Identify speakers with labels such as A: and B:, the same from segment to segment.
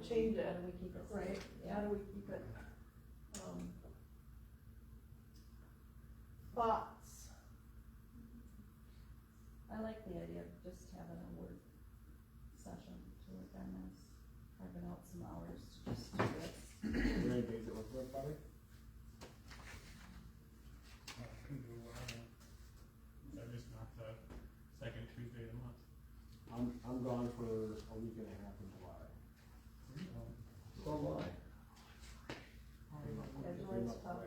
A: change
B: How
A: it,
B: do we keep it?
A: right? How
B: Yeah.
A: do we keep it? Um, Thoughts?
B: I like the idea of just having a work session to work on this, carving out some hours to just do this.
C: Are there any days that work for everybody?
D: I can do whatever. That is not the second Tuesday of the month.
C: I'm, I'm gone for a week and a half in July.
A: So what?
C: Three months-
B: Um,
A: That's
C: three
A: always
C: months
A: tough.
C: away.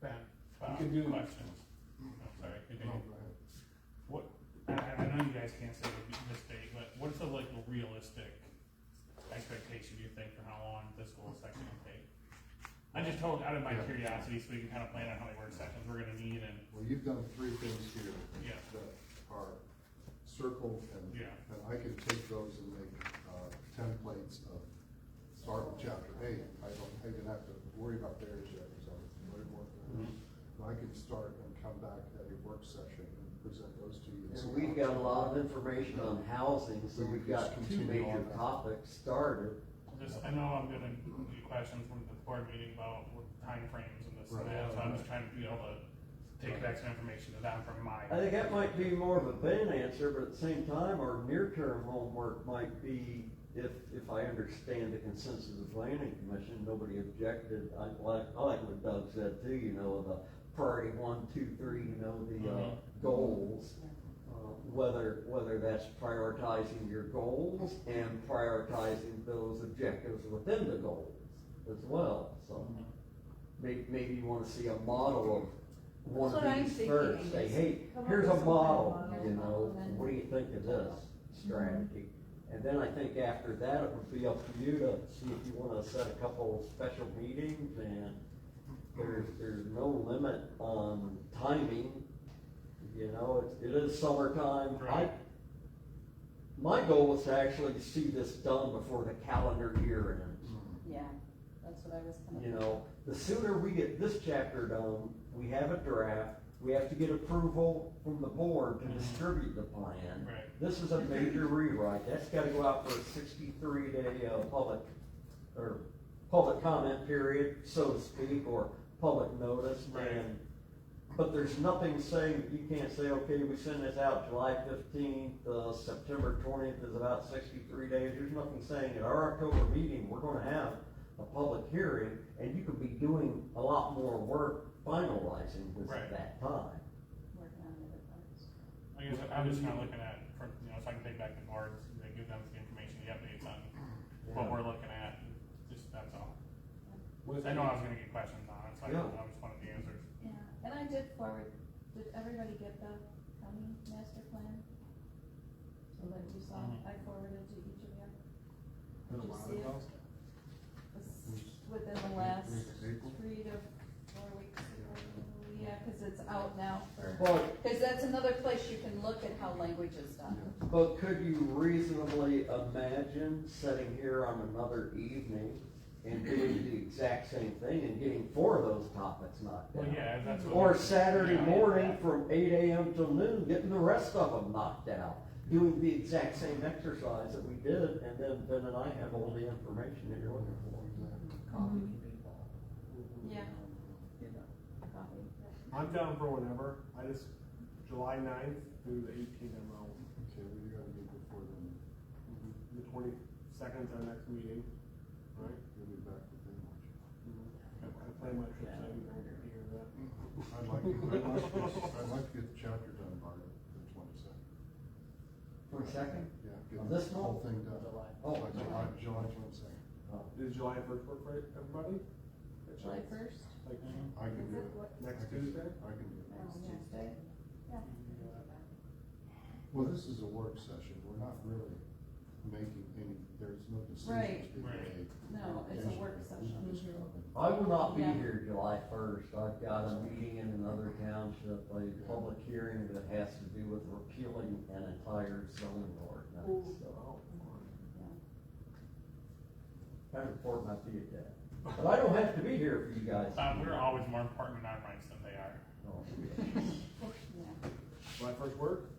D: Ben,
C: You
D: Bob,
C: can do-
D: questions. I'm sorry, continue.
C: No, go ahead.
D: What, I, I I know you guys can't say this date, but what's the like realistic expectation you think for how long this whole section will take? I just told, out of my
E: Yeah.
D: curiosity, so we can kind of plan out how many work sessions we're gonna need and,
E: Well, you've done three things here
D: yeah,
E: that are circled and,
D: yeah,
E: and I can take those and make, uh, templates of, start with chapter eight. I don't, I didn't have to worry about theirs yet, because I was already working. on
D: Mm-hmm.
E: it. But I can start and come back at a work session and present those to you.
F: And we've got a lot of information on housing, so we've got two major topics started.
D: just, I know I'm gonna get questions from the board meeting about timeframes and this and
E: Right.
D: that, so I'm just trying to be able to take back some information to them from my.
F: I think that might be more of a Ben answer, but at the same time, our near-term homework might be, if, if I understand the consensus of the planning commission, nobody objected. I like, I like what Doug said too, you know, the priority one, two, three, you know, the, uh,
D: Mhm.
F: goals. Uh, Whether, whether that's prioritizing your goals and prioritizing those objectives within the goals as well, so.
D: Mhm.
F: Maybe, maybe you wanna see a model of one
B: That's what
F: of
B: I'm
F: these first,
B: thinking,
F: say,
B: is
F: hey,
A: come up
F: here's a
A: with some kind of
F: model,
A: model. Mhm.
F: you know,
B: Then-
F: what do you think of this strategy? And then I think after that, it would be up to you to see if you wanna set a couple special meetings and there's, there's no limit on timing. You know, it, it is summertime, I,
D: Right.
F: my goal was to actually see this done before the calendar year ends.
B: Yeah, that's what I was kind of.
F: You know, the sooner we get this chapter done, we have a draft, we have to get approval from the board to distribute the plan.
D: Mm-hmm. Right.
F: This is a major rewrite, that's gotta go out for a sixty-three day, uh, public, or public comment period, so to speak, or public notice.
D: Right.
F: And, but there's nothing saying, that you can't say, okay, we send this out July fifteenth, uh, September twentieth is about sixty-three days. There's nothing saying at our October meeting, we're gonna have a public hearing, and you could be doing a lot more work finalizing this
D: Right.
F: at that time.
B: Working on the other parts.
D: I guess I'm just kind of looking at, for, you know, so I can take back the boards and give them the information, the updates on um, what
F: Yeah.
D: we're looking at, just, that's all.
C: What if
D: I know
C: you-
D: I was gonna get questions on it, so I
F: Yeah.
D: I just wanted the answers.
B: Yeah, and I did forward, did everybody get the county master plan? So that you saw,
D: Mhm.
B: I forwarded to each of you.
C: Been
B: Did
C: a
B: you
C: while
B: see it?
C: ago.
B: It's Within the last
E: April?
B: three to four weeks ago, yeah, cause it's out now for,
F: But,
B: cause that's another place you can look at how language is done.
F: but could you reasonably imagine sitting here on another evening and doing the exact same thing and getting four of those topics knocked
D: Well,
F: down?
D: yeah, that's what.
F: Or
D: we-
F: Saturday
D: yeah.
F: morning from eight AM till noon, getting the rest of them knocked out, doing the exact same exercise that we did, and then Ben and I have all the information that you're looking for.
B: Coffee can be Yeah. Coffee.
C: I'm down for whenever, I just, July ninth through the eighteenth, I'm out. Mm-hmm.
E: Okay, well, you gotta meet before then,
C: The twenty-second's our next meeting, right?
E: you'll be back with them. won't you?
C: I I plan my trips, I can hear that.
E: I'd like, I'd like, this- I'd like to get the chapter done by the twenty-second.
F: Twenty-second?
E: Yeah, get
F: This
E: the whole
F: month?
E: thing done.
F: July.
E: Oh,
F: Oh,
E: July, July twenty-second.
C: Is July first work for everybody?
B: July first?
C: Like,
E: I can do it.
C: Next
E: I can-
C: Tuesday?
E: I can do it.
B: Tuesday? Oh, Yeah.
E: Well, this is a work session, we're not really making any, there's no decisions
B: Right.
E: being
D: Right.
E: made.
B: No, it's a work
E: We
B: session.
E: can just come and-
F: I will not be
B: Yeah.
F: here July first, I've got a meeting in another township, a public hearing that has to do with repealing an entire zoning ordinance, so. Kind of important I be at that, but I don't have to be here for you guys.
D: Uh, we're always more important in our minds than they are.
F: Oh,
B: Yeah.
C: my first work,